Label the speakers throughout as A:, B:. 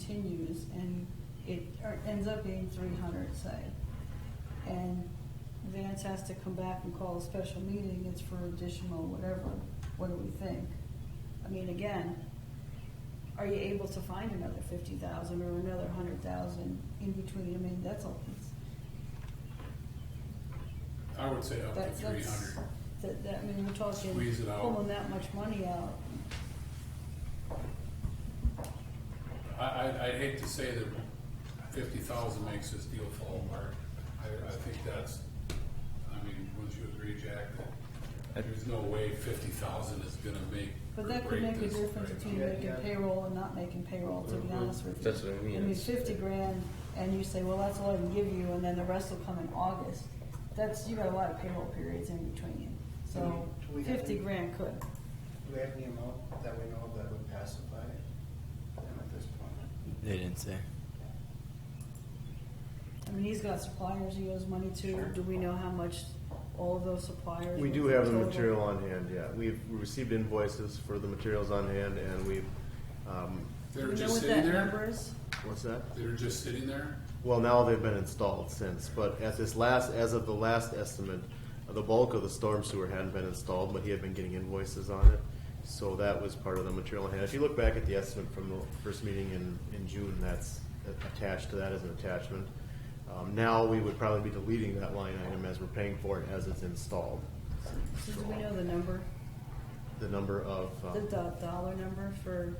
A: continues and it or ends up being three hundred, say. And Vance has to come back and call a special meeting, it's for additional whatever, what do we think? I mean, again, are you able to find another fifty thousand or another hundred thousand in between? I mean, that's all, it's,
B: I would say up to
A: that's,
B: three
A: that's,
B: hundred.
A: that, that, I mean, we're talking
B: Squeeze it out.
A: pulling that much money out.
B: I, I, I'd hate to say that fifty thousand makes this deal fall apart. I, I think that's, I mean, wouldn't you agree, Jack, that there's no way fifty thousand is gonna make or
A: But that could
B: break
A: make a
B: this
A: difference
B: right
A: between
B: now.
A: making payroll and not making payroll, to be honest with you.
C: That's what I mean, it's-
A: fifty grand, and you say, well, that's all I can give you, and then the rest will come in August. That's, you got a lot of payroll periods in between,
B: Mm-hmm.
A: so
D: Do we have
A: fifty
D: any-
A: grand could.
D: Do we have any amount that we know of that would pacify them at this point?
E: They didn't say.
A: I mean, he's got suppliers he owes money to, do we know how much all of those suppliers?
F: We
A: were
F: do have the
A: total?
F: material on hand, yeah. We've received invoices for the materials on hand and we've, um,
A: Do
B: They're
A: we know
B: just
A: what
B: sitting
A: that number
B: there,
A: is?
F: what's that?
B: they're just sitting there?
F: Well, now they've been installed since, but as this last, as of the last estimate, the bulk of the storm sewer hadn't been installed, but he had been getting invoices on it. So that was part of the material on hand. If you look back at the estimate from the first meeting in, in June, that's attached to that as an attachment. Um, now we would probably be deleting that line item as we're paying for it as it's installed.
A: So do we know the number,
F: The number of, um,
A: the do- dollar number for,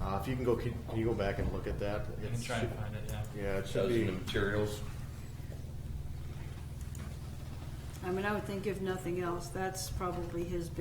F: Uh, if you can go, can you go back and look at that?
E: I can
F: It's-
E: try and find it,
F: Yeah,
E: yeah.
F: it should
C: Those are
F: be,
C: the materials.
A: I mean, I would think if nothing else, that's probably his